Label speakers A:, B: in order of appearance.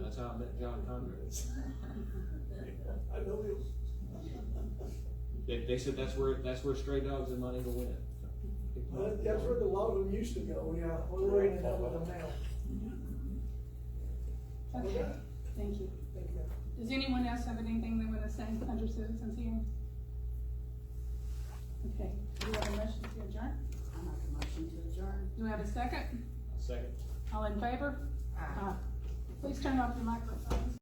A: job that John Connor is.
B: I know him.
A: They, they said that's where, that's where stray dogs and money go in.
B: Well, Uh, That's where the lot of them used to go, yeah, well, we're ending up with them now.
C: Okay, thank you. Does anyone else have anything they wanna say under citizens here? Okay, do you have a motion to adjourn?
D: I make a motion to adjourn.
C: Do we have a second?
A: Second.
C: All in favor? Aye. Please turn off your microphones.